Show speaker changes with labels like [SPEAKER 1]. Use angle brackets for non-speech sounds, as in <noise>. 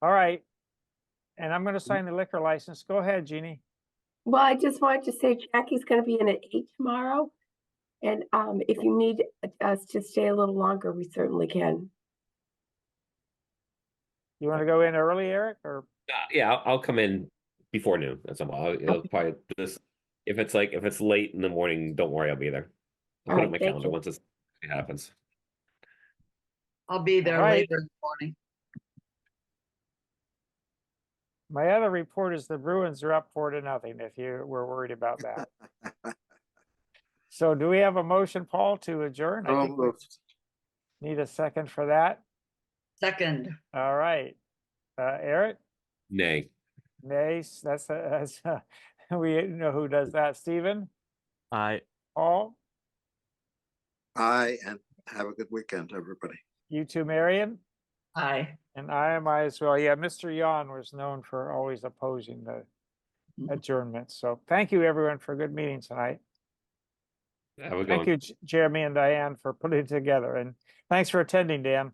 [SPEAKER 1] All right. And I'm gonna sign the liquor license. Go ahead, Jeannie.
[SPEAKER 2] Well, I just wanted to say Jackie's gonna be in at eight tomorrow. And um, if you need us to stay a little longer, we certainly can.
[SPEAKER 1] You wanna go in early, Eric, or?
[SPEAKER 3] Uh, yeah, I'll, I'll come in before noon. That's all. I'll, it'll probably just if it's like if it's late in the morning, don't worry, I'll be there.
[SPEAKER 2] All
[SPEAKER 3] I'll put it
[SPEAKER 2] right,
[SPEAKER 3] on my
[SPEAKER 2] thank
[SPEAKER 3] calendar
[SPEAKER 2] you.
[SPEAKER 3] once it's, it happens.
[SPEAKER 4] I'll be there
[SPEAKER 1] Alright.
[SPEAKER 4] later in the morning.
[SPEAKER 1] My other report is the Bruins are up four to nothing, if you were worried about that. So do we have a motion, Paul, to adjourn? I think we need a second for that.
[SPEAKER 4] Second,
[SPEAKER 1] All right. Uh, Eric,
[SPEAKER 3] Nay.
[SPEAKER 1] Nace, that's, a- <laughs> that's, a- we know who does that. Stephen,
[SPEAKER 5] I
[SPEAKER 1] Paul,
[SPEAKER 6] Aye, and have a good weekend, everybody.
[SPEAKER 1] you two, Marion?
[SPEAKER 4] aye.
[SPEAKER 1] And I am I as well. Yeah, Mr. Yan was known for always opposing the
[SPEAKER 4] Mhm.
[SPEAKER 1] adjournment. So thank you, everyone, for a good meeting tonight.
[SPEAKER 3] Have a good one.
[SPEAKER 1] Thank you, J- Jeremy and Diane, for putting it together, and thanks for attending, Dan.